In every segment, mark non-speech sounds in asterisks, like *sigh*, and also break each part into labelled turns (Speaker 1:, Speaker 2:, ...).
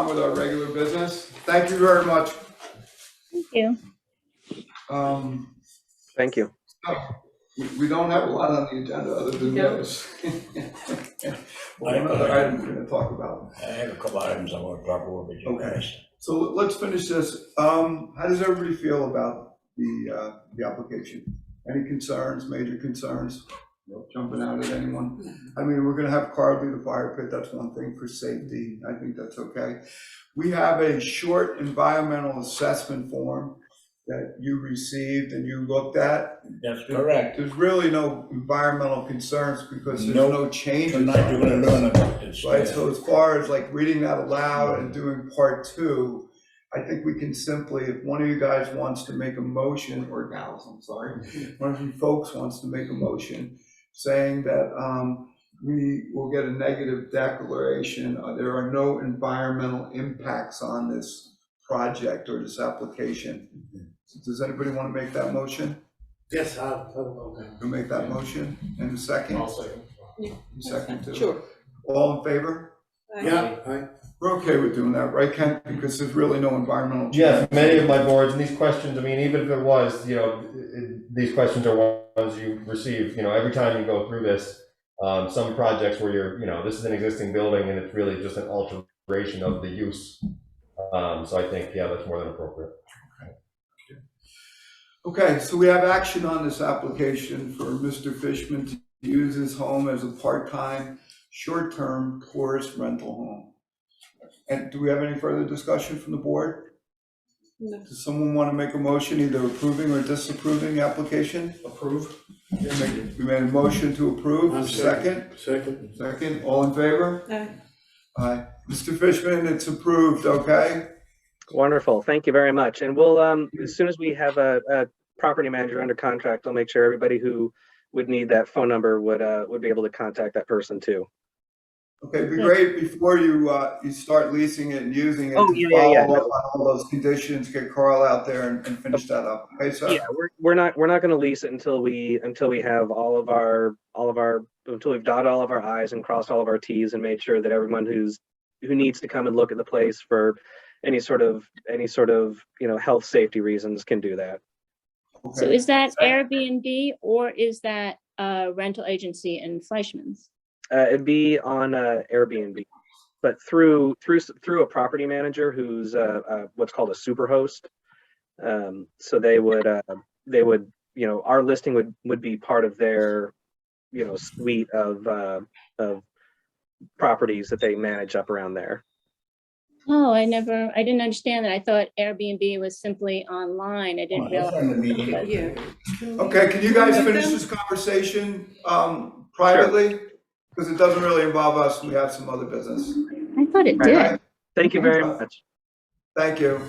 Speaker 1: with our regular business. Thank you very much.
Speaker 2: Thank you.
Speaker 1: Um,
Speaker 3: Thank you.
Speaker 1: we, we don't have a lot on the agenda other than
Speaker 4: No.
Speaker 1: those. *laughs* One other item we're gonna talk about.
Speaker 5: I have a couple items I want to talk over with you
Speaker 1: Okay.
Speaker 5: guys.
Speaker 1: So let's finish this. Um, how does everybody feel about the, uh, the application? Any concerns, major concerns? No Jumping out at anyone? I mean, we're gonna have Carl do the fire pit, that's one thing for safety, I think that's okay. We have a short environmental assessment form that you received and you looked at.
Speaker 5: That's correct.
Speaker 1: There's really no environmental concerns because there's
Speaker 5: Nope.
Speaker 1: no changes.
Speaker 5: Tonight you're gonna
Speaker 1: on this.
Speaker 5: learn about this.
Speaker 1: Right, so as far as like reading that aloud and doing part two, I think we can simply, if one of you guys wants to make a motion, or gals, I'm sorry,
Speaker 6: Mm-hmm.
Speaker 1: one of you folks wants to make a motion saying that, um, we will get a negative declaration, uh, there are no environmental impacts on this project or this application.
Speaker 6: Mm-hmm.
Speaker 1: Does anybody want to make that motion?
Speaker 6: Yes, I'll, okay.
Speaker 1: Who make that motion? And a second?
Speaker 6: I'll second.
Speaker 1: You Second too?
Speaker 4: Sure.
Speaker 1: All in favor?
Speaker 6: Yeah, I,
Speaker 1: We're okay with doing that, right, Ken? Because there's really no environmental.
Speaker 7: Yes,
Speaker 1: change.
Speaker 7: many of my boards, and these questions, I mean, even if it was, you know, it- it- these questions are ones you receive, you know, every time you go through this. Um, some projects where you're, you know, this is an existing building and it's really just an alteration of the use. Um, so I think, yeah, that's more than appropriate.
Speaker 1: Okay, so we have action on this application for Mr. Fishman to use his home as a part-time, short-term tourist rental home. And do we have any further discussion from the board?
Speaker 4: No.
Speaker 1: Does someone want to make a motion either approving or disapproving the application? Approved. We made a motion to
Speaker 6: I'm
Speaker 1: approve, second,
Speaker 6: second. second.
Speaker 1: second, all in favor?
Speaker 4: Aye.
Speaker 1: Aye. Mr. Fishman, it's approved, okay?
Speaker 3: Wonderful. Thank you very much. And we'll, um, as soon as we have a, a property manager under contract, I'll make sure everybody who would need that phone number would, uh, would be able to contact that person too.
Speaker 1: Okay, it'd be great before you, uh, you start leasing it and using it.
Speaker 3: Oh,
Speaker 1: to
Speaker 3: yeah, yeah, yeah,
Speaker 1: Follow up on all those conditions, get Carl out there and, and finish that up. Okay, so,
Speaker 3: Yeah, we're, we're not, we're not gonna lease it until we, until we have all of our, all of our, until we've dotted all of our i's and crossed all of our t's and made sure that everyone who's, who needs to come and look at the place for any sort of, any sort of, you know, health, safety reasons can do that.
Speaker 2: So
Speaker 1: okay,
Speaker 2: is that Airbnb or is that a rental agency in Fleischman's?
Speaker 3: Uh, it'd be on uh, Airbnb, but through through s- through a property manager who's uh, uh, what's called a superhost. Um, so they would uh, they would you know our listing would would be part of their you know suite of uh, of properties that they manage up around there.
Speaker 2: Oh, I never, I didn't understand that. I thought Airbnb was simply online. I didn't
Speaker 5: Well, that's
Speaker 2: realize.
Speaker 5: on the meeting.
Speaker 4: Yeah.
Speaker 1: okay, can you guys
Speaker 4: Can we
Speaker 1: finish
Speaker 4: move
Speaker 1: this conversation, um, privately? Because it doesn't really involve us, we have some other business.
Speaker 2: I thought it
Speaker 3: Right.
Speaker 2: did.
Speaker 1: Okay,
Speaker 3: Thank you very
Speaker 1: Okay.
Speaker 3: much.
Speaker 1: Thank you.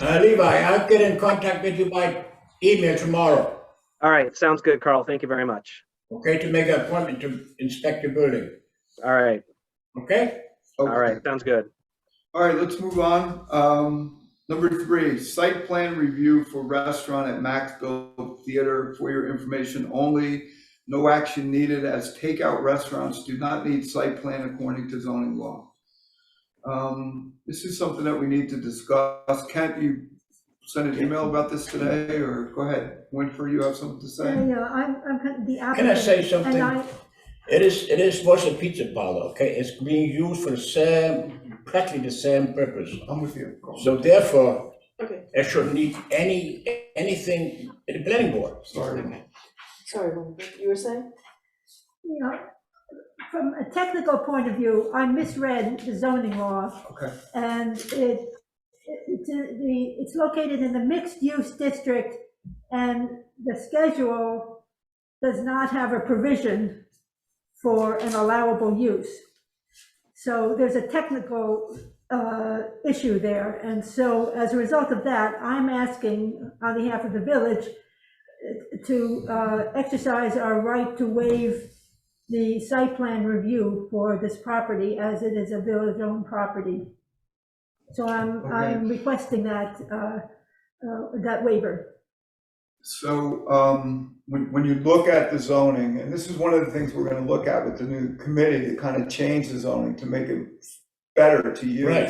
Speaker 5: Uh, Levi, I'll get in contact with you by email tomorrow,
Speaker 3: All right, sounds good, Carl. Thank you very much.
Speaker 5: okay, to make an appointment to inspect your building,
Speaker 3: All right,
Speaker 5: okay?
Speaker 3: all right, sounds good.
Speaker 1: All right, let's move on. Um, number three, site plan review for restaurant at Maxville Theater for your information only. No action needed as takeout restaurants do not need site plan according to zoning law. Um, this is something that we need to discuss. Kent, you sent an email about this today or go ahead. Winfrey, you have something to say?
Speaker 8: Yeah, I'm, I'm kind of the applicant.
Speaker 5: Can I say
Speaker 8: And
Speaker 5: something?
Speaker 8: I,
Speaker 5: It is, it is was a pizza parlor, okay, it's being used for the same, practically the same purpose.
Speaker 1: I'm with you. Carl.
Speaker 5: So therefore,
Speaker 4: Okay,
Speaker 5: it shouldn't need any, anything in the planning board.
Speaker 1: Sorry.
Speaker 4: sorry, Wendy, you were saying?
Speaker 8: you know, from a technical point of view, I misread the zoning law.
Speaker 1: Okay.
Speaker 8: And it, it's, in the, it's located in the mixed-use district, and the schedule does not have a provision for an allowable use. So there's a technical uh, issue there, and so as a result of that, I'm asking on behalf of the village uh, to uh, exercise our right to waive the site plan review for this property as it is a village-owned property. So I'm, I'm requesting that, uh, uh, that waiver.
Speaker 1: So, um, when, when you look at the zoning, and this is one of the things we're gonna look at with the new committee to kind of change the zoning to make it better to use.
Speaker 5: Right.